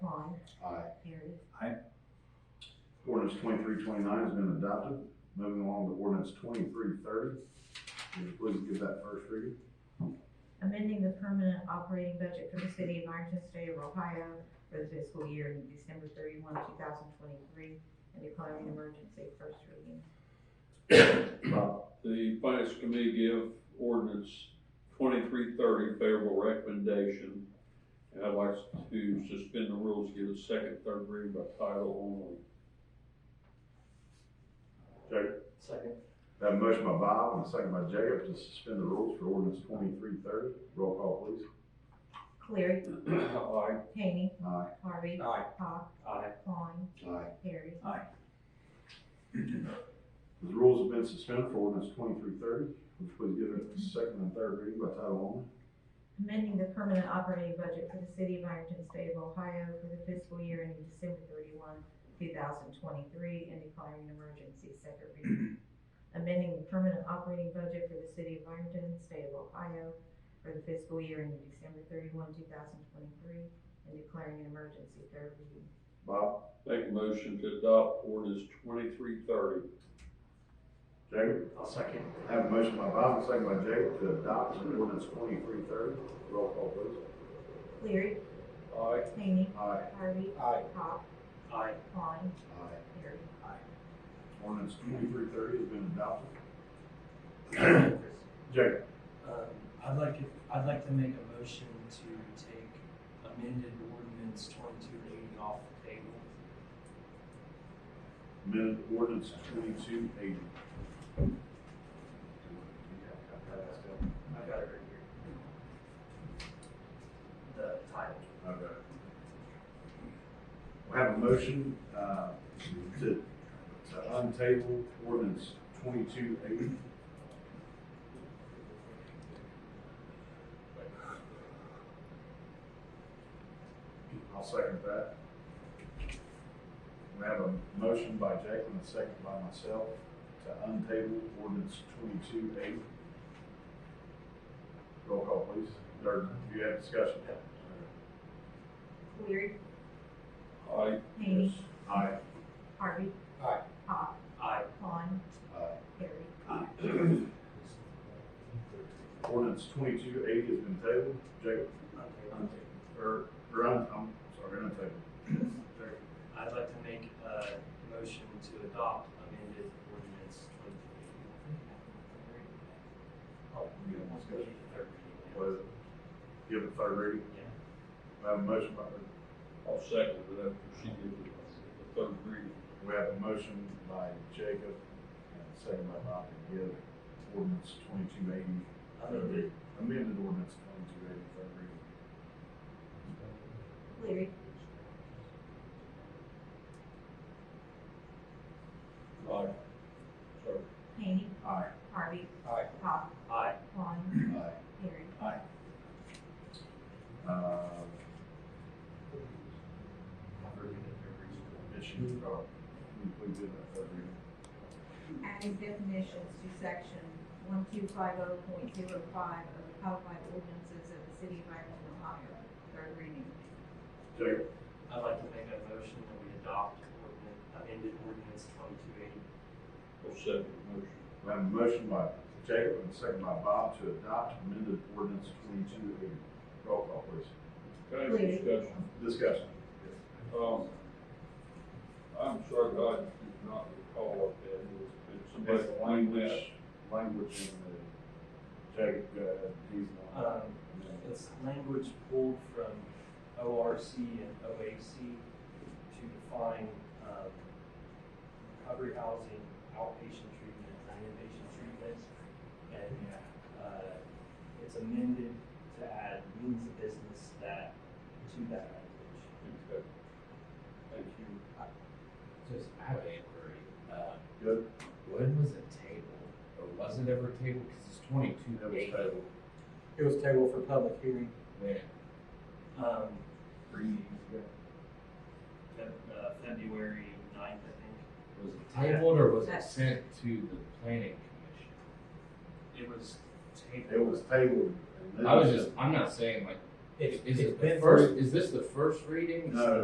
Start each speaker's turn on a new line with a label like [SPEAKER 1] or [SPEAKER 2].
[SPEAKER 1] Aye.
[SPEAKER 2] Harry.
[SPEAKER 1] Ordinance twenty-three twenty-nine has been adopted. Moving along to ordinance twenty-three thirty. Would you please give that first reading?
[SPEAKER 2] Amending the permanent operating budget for the city of Ironton, state of Ohio for the fiscal year ending December thirty-one, two thousand twenty-three, and declaring an emergency first reading.
[SPEAKER 1] Rob,
[SPEAKER 3] The finance committee give ordinance twenty-three thirty favorable recommendation. And I'd like to suspend the rules, give a second, third reading by title
[SPEAKER 1] Jacob.
[SPEAKER 4] Second.
[SPEAKER 1] Have a motion by Bob and a second by Jacob to suspend the rules for ordinance twenty-three thirty. Roll call, please.
[SPEAKER 2] Cleary.
[SPEAKER 3] only. Aye.
[SPEAKER 2] Hany.
[SPEAKER 1] Aye.
[SPEAKER 2] Harvey.
[SPEAKER 4] Aye.
[SPEAKER 2] Hawk.
[SPEAKER 4] Aye.
[SPEAKER 2] Klein.
[SPEAKER 1] Aye.
[SPEAKER 2] Harry.
[SPEAKER 1] The rules have been suspended for ordinance twenty-three thirty. Would you please give it a second and third reading by title only?
[SPEAKER 2] Amending the permanent operating budget for the city of Ironton, state of Ohio for the fiscal year ending December thirty-one, two thousand twenty-three, and declaring an emergency, second reading. Amending the permanent operating budget for the city of Ironton, state of Ohio for the fiscal year ending December thirty-one, two thousand twenty-three, and declaring an emergency, third reading.
[SPEAKER 1] Bob,
[SPEAKER 3] Make a motion to adopt ordinance twenty-three thirty.
[SPEAKER 1] Jacob.
[SPEAKER 4] I'll second.
[SPEAKER 1] I Have a motion by Bob, and a second by Jacob to adopt ordinance twenty-three thirty. Roll call, please.
[SPEAKER 2] Cleary.
[SPEAKER 3] Aye.
[SPEAKER 2] Hany.
[SPEAKER 1] Aye.
[SPEAKER 2] Harvey.
[SPEAKER 4] Aye.
[SPEAKER 2] Hawk.
[SPEAKER 4] Aye.
[SPEAKER 2] Klein.
[SPEAKER 1] Aye.
[SPEAKER 2] Harry.
[SPEAKER 1] Ordinance twenty-three thirty has been adopted. Jacob,
[SPEAKER 5] Um, I'd like, it- I'd like to make a motion to take amended ordinance twenty-two eighty off the table.
[SPEAKER 1] amended ordinance twenty-two eighty.
[SPEAKER 4] I've got it right here. The title.
[SPEAKER 1] Okay. We have a motion, uh, to, to untable ordinance twenty-two eighty. I'll second that. We have a motion by Jacob and a second by myself to untable ordinance twenty-two eighty. Roll call, please. Or do you have discussion?
[SPEAKER 2] Cleary.
[SPEAKER 3] Aye.
[SPEAKER 2] Hany.
[SPEAKER 1] Aye.
[SPEAKER 2] Harvey.
[SPEAKER 4] Aye.
[SPEAKER 2] Hawk.
[SPEAKER 4] Aye.
[SPEAKER 2] Klein.
[SPEAKER 1] Aye.
[SPEAKER 2] Harry.
[SPEAKER 1] Ordinance twenty-two eighty has been tabled. Jacob,
[SPEAKER 5] Okay.
[SPEAKER 1] or, or I'm, I'm sorry, untabled.
[SPEAKER 5] I'd like to make a motion to adopt amended ordinance twenty-two eighty.
[SPEAKER 1] Was it? Give it third reading.
[SPEAKER 5] Yeah.
[SPEAKER 1] We have a motion by,
[SPEAKER 3] I'll second it after she gives it a third reading.
[SPEAKER 1] we have a motion by Jacob and a second by Bob to give ordinance twenty-two eighty.
[SPEAKER 5] Amended.
[SPEAKER 1] Amended ordinance twenty-two eighty, third reading.
[SPEAKER 2] Cleary.
[SPEAKER 3] Aye. Sorry.
[SPEAKER 2] Hany.
[SPEAKER 1] Aye.
[SPEAKER 2] Harvey.
[SPEAKER 4] Aye.
[SPEAKER 2] Hawk.
[SPEAKER 4] Aye.
[SPEAKER 2] Klein.
[SPEAKER 1] Aye.
[SPEAKER 2] Harry.
[SPEAKER 1] Uh, issue, uh, we, we did that third reading.
[SPEAKER 2] Adding definitions to section one two five oh point zero five of the codified ordinances of the city of Ironton, Ohio, third reading.
[SPEAKER 1] Jacob?
[SPEAKER 5] I'd like to make a motion that we adopt ordinance, amended ordinance twenty-two eighty.
[SPEAKER 3] I'll second the motion.
[SPEAKER 1] We have a motion by Jacob and a second by Bob to adopt amended ordinance twenty-two eighty. Roll call, please.
[SPEAKER 3] Okay,
[SPEAKER 2] Cleary.
[SPEAKER 3] discussion.
[SPEAKER 1] Discussion.
[SPEAKER 3] Um, I'm sorry, but I did not recall what that is. Did somebody
[SPEAKER 1] It's
[SPEAKER 3] explain that?
[SPEAKER 1] Language in the, Jacob, go ahead, he's the one.
[SPEAKER 5] Um, It's language pulled from ORC and OAC to define um, recovery housing, outpatient treatment, and inpatient treatment. And uh, it's amended to add means of business that, to that language.
[SPEAKER 3] Okay. Thank you.
[SPEAKER 6] Just, I have an inquiry. Um,
[SPEAKER 1] Good.
[SPEAKER 6] When was it tabled? Or was it ever tabled? Because it's twenty-two.
[SPEAKER 1] It was tabled.
[SPEAKER 4] It was tabled for public hearing.
[SPEAKER 6] When?
[SPEAKER 5] Um,
[SPEAKER 6] Three years ago.
[SPEAKER 5] Feb- uh, February ninth, I
[SPEAKER 6] Was it tabled or was it
[SPEAKER 2] That's-
[SPEAKER 6] sent to the planning
[SPEAKER 5] think, it was tabled.
[SPEAKER 1] It was tabled. and then-
[SPEAKER 6] commission? I was just, I'm not saying like,
[SPEAKER 4] It's, it's
[SPEAKER 6] is it the
[SPEAKER 4] been
[SPEAKER 6] first, is this the first reading?
[SPEAKER 1] No,